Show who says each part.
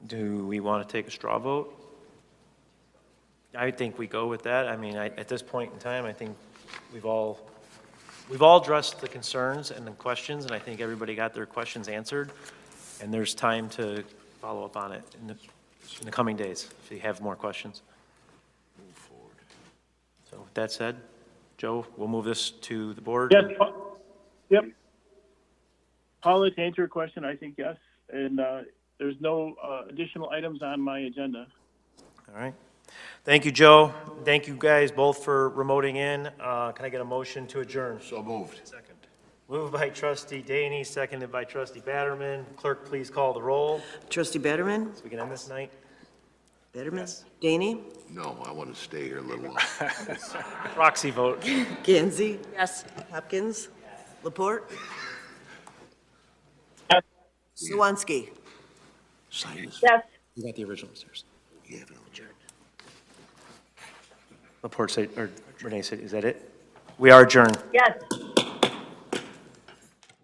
Speaker 1: Do we want to take a straw vote? I think we go with that. I mean, I, at this point in time, I think we've all, we've all addressed the concerns and the questions, and I think everybody got their questions answered. And there's time to follow up on it in the, in the coming days, if you have more questions. So with that said, Joe, we'll move this to the board.
Speaker 2: Yes, Pa- yep. Paula, to answer your question, I think yes, and uh, there's no uh, additional items on my agenda.
Speaker 1: All right. Thank you, Joe. Thank you guys both for remoting in. Uh, Can I get a motion to adjourn?
Speaker 3: So moved.
Speaker 1: Moved by trustee Daney, seconded by trustee Batterman. Clerk, please call the roll.
Speaker 4: Trustee Betterman?
Speaker 1: So we can end this night.
Speaker 4: Betterman? Daney?
Speaker 3: No, I want to stay here a little longer.
Speaker 1: Proxy vote.
Speaker 4: Gansey?
Speaker 5: Yes.
Speaker 4: Hopkins? Laporte?
Speaker 2: Yes.
Speaker 4: Swansky?
Speaker 3: Sign this.
Speaker 5: Yes.
Speaker 6: You got the original upstairs.
Speaker 3: You have it on the-
Speaker 1: Laporte said, or Renee said, is that it? We are adjourned.
Speaker 5: Yes.